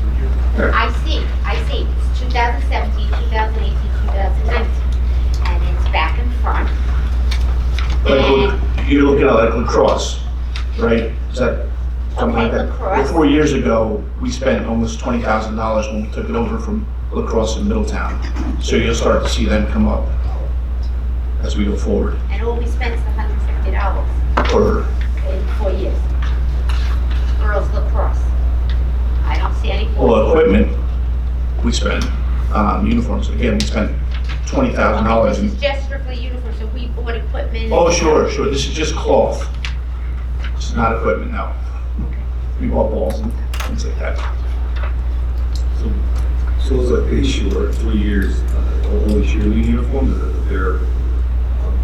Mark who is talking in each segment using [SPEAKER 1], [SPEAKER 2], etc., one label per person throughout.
[SPEAKER 1] I see, I see. It's 2017, 2018, 2019. And it's back and front.
[SPEAKER 2] Like, you're looking at like lacrosse, right? Is that something like that?
[SPEAKER 1] Okay, lacrosse.
[SPEAKER 2] Four years ago, we spent almost twenty thousand dollars when we took it over from lacrosse in Middletown. So you'll start to see them come up as we go forward
[SPEAKER 1] And all we spent is $150
[SPEAKER 2] for
[SPEAKER 1] in four years. Girls lacrosse. I don't see any.
[SPEAKER 2] all the equipment we spend, um, uniforms. Again, we spent twenty thousand dollars
[SPEAKER 1] This
[SPEAKER 2] in,
[SPEAKER 1] is just strictly uniforms, so we bought equipment.
[SPEAKER 2] oh, sure, sure, this is just cloth. This is not equipment, no. We bought balls and things like that.
[SPEAKER 3] So so it's like they sure, three years, uh, only cheerleading uniforms, uh, their um,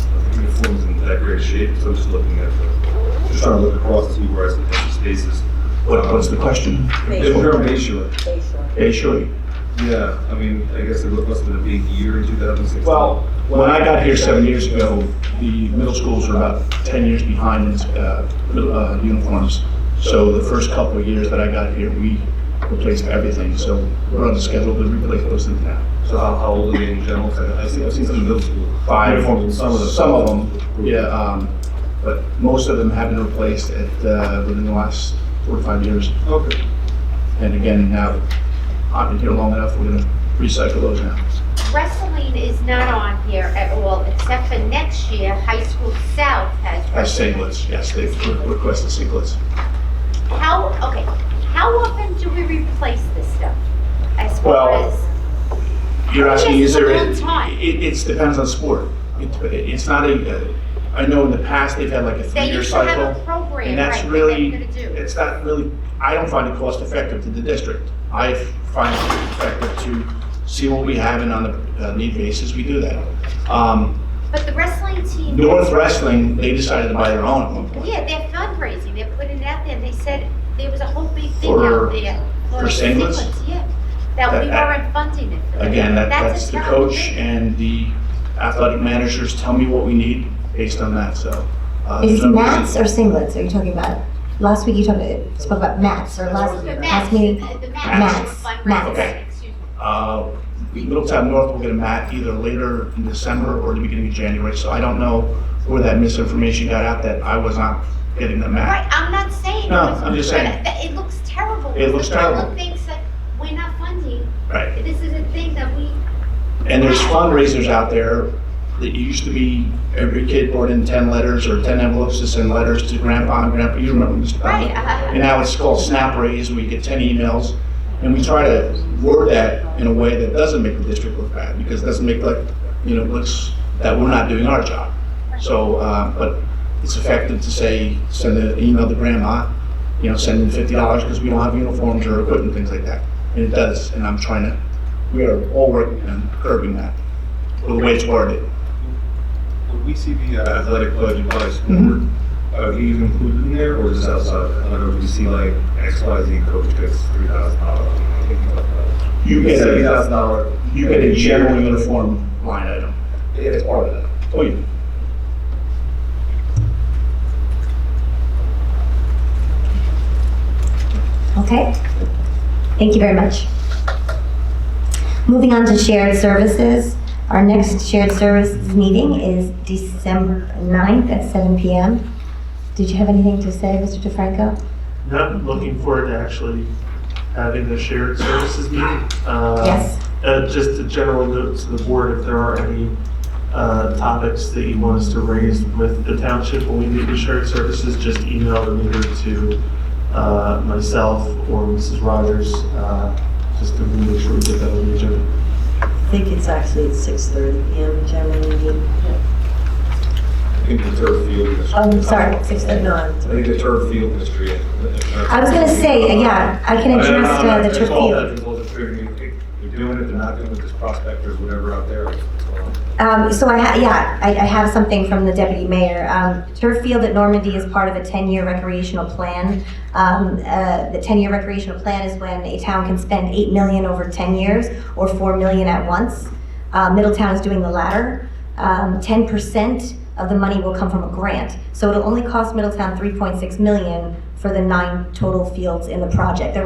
[SPEAKER 3] uh, uniforms in that great shape, so I'm just looking at, the- just trying to look across to see where I see empty spaces.
[SPEAKER 2] What, what's the question?
[SPEAKER 3] It's from Bayshore,
[SPEAKER 2] Yeah, sure.
[SPEAKER 3] yeah, I mean, I guess it must have been a big year in 2016.
[SPEAKER 2] Well, when I got here seven years ago, the middle schools were about 10 years behind in uh, mil- uh, uniforms. So the first couple of years that I got here, we replaced everything. So we're on the schedule to replace those things now.
[SPEAKER 3] So how, how old are they in general? 'Cause I- I've seen, I've seen some middle school.
[SPEAKER 2] Five,
[SPEAKER 3] Uniforms,
[SPEAKER 2] some of them, yeah, um, but most of them have been replaced at, uh, within the last four to five years.
[SPEAKER 3] Okay.
[SPEAKER 2] And again, now, I've been here long enough, we're gonna recycle those now.
[SPEAKER 1] Wrestling is not on here at all, except for next year, High School South has.
[SPEAKER 2] As singlets, yes, they've re- requested singlets.
[SPEAKER 1] How, okay, how often do we replace this stuff? As far
[SPEAKER 2] Well,
[SPEAKER 1] as,
[SPEAKER 2] You're asking, is there,
[SPEAKER 1] Yes,
[SPEAKER 2] it,
[SPEAKER 1] it's a long time.
[SPEAKER 2] it depends on sport. It- It's not a, I know in the past, they've had like a
[SPEAKER 1] they
[SPEAKER 2] three-year
[SPEAKER 1] used to have a
[SPEAKER 2] cycle.
[SPEAKER 1] program,
[SPEAKER 2] And
[SPEAKER 1] right,
[SPEAKER 2] that's
[SPEAKER 1] that
[SPEAKER 2] really,
[SPEAKER 1] they're gonna do.
[SPEAKER 2] it's not really, I don't find it cost-effective to the district. I find it effective to see what we have and on the uh, need basis, we do that. Um,
[SPEAKER 1] But the wrestling team.
[SPEAKER 2] North Wrestling, they decided to buy their own at one point
[SPEAKER 1] Yeah, they're fundraising, they're putting it out there, they said there was a whole big thing
[SPEAKER 2] For-
[SPEAKER 1] out there.
[SPEAKER 2] for singlets?
[SPEAKER 1] Yeah, that we
[SPEAKER 2] That-
[SPEAKER 1] weren't funding it. for that.
[SPEAKER 2] Again, that,
[SPEAKER 1] a
[SPEAKER 2] that's the
[SPEAKER 1] terrible
[SPEAKER 2] coach
[SPEAKER 1] thing.
[SPEAKER 2] and the athletic managers tell me what we need based on that, so. uh, there's
[SPEAKER 4] Is
[SPEAKER 2] no reason-
[SPEAKER 4] mats or singlets are you talking about? Last week you talked, spoke about mats or last,
[SPEAKER 1] The
[SPEAKER 4] last
[SPEAKER 1] Max,
[SPEAKER 4] meeting.
[SPEAKER 1] the
[SPEAKER 4] Max,
[SPEAKER 1] Max
[SPEAKER 4] Max.
[SPEAKER 1] fundraising,
[SPEAKER 2] Okay.
[SPEAKER 1] excuse me.
[SPEAKER 2] Uh, Middletown North will get a mat either later in December or the beginning of January, so I don't know where that misinformation got out that I was not getting the mat.
[SPEAKER 1] Right, I'm not saying. it
[SPEAKER 2] No,
[SPEAKER 1] was-
[SPEAKER 2] I'm just saying.
[SPEAKER 1] that- It looks terrible.
[SPEAKER 2] It looks
[SPEAKER 1] The public
[SPEAKER 2] terrible.
[SPEAKER 1] thinks that we're not funding,
[SPEAKER 2] Right.
[SPEAKER 1] this is a thing that we,
[SPEAKER 2] And there's fundraisers out there that used to be every kid brought in 10 letters or 10 envelopes to send letters to grandpa and grandpa, you remember Mr. Bowden?
[SPEAKER 1] right, uh,
[SPEAKER 2] And now it's called Snap Raise, where you get 10 emails. And we try to word that in a way that doesn't make the district look bad, because it doesn't make like, you know, looks that we're not doing our job. So, uh, but it's effective to say, send an email to grandma, you know, send in $50 because we don't have uniforms or equipment, things like that. And it does, and I'm trying to, we are all working on curbing that, the way it's worded.
[SPEAKER 3] Would we see the uh, athletic budget by school
[SPEAKER 2] Mhm.
[SPEAKER 3] board?
[SPEAKER 4] Mm-hmm.
[SPEAKER 3] Are these included in there or is this outside? I don't know if you see like X, Y, Z coach gets three thousand dollars.
[SPEAKER 2] You get
[SPEAKER 3] Seventy
[SPEAKER 2] a,
[SPEAKER 3] thousand dollar.
[SPEAKER 2] you get a general uniform line item.
[SPEAKER 3] Yeah, it's part of that.
[SPEAKER 2] Oh, yeah.
[SPEAKER 4] Okay. Thank you very much. Moving on to shared services. Our next shared services meeting is December 9th at 7 PM. Did you have anything to say, Mr. DeFranco?
[SPEAKER 5] Not looking forward to actually having the shared services meeting. Uh,
[SPEAKER 4] Yes.
[SPEAKER 5] uh, Just a general note to the board, if there are any uh, topics that you want us to raise with the township when we meet with shared services, just email them either to uh, myself or Mrs. Rogers, uh, just to make sure we get that on the agenda.
[SPEAKER 6] I think it's actually at 6:30 PM generally.
[SPEAKER 3] I think the turf field is.
[SPEAKER 4] Oh, I'm sorry, six
[SPEAKER 6] At
[SPEAKER 4] thirty.
[SPEAKER 6] nine.
[SPEAKER 3] I think the turf field is three.
[SPEAKER 4] I was gonna say, yeah, I can address uh, the
[SPEAKER 3] It's all that,
[SPEAKER 4] tribute.
[SPEAKER 3] it's all the tribute. They're doing it, they're not doing it, there's prospectors, whatever out there. It's all-
[SPEAKER 4] Um, so I, ha- yeah, I, I have something from the deputy mayor. Um, turf field at Normandy is part of a ten-year recreational plan. Um, uh, the ten-year recreational plan is when a town can spend eight million over ten years or four million at once. Uh, Middletown is doing the latter. Um, ten percent of the money will come from a grant. So it'll only cost Middletown three point six million for the nine total fields in the project. There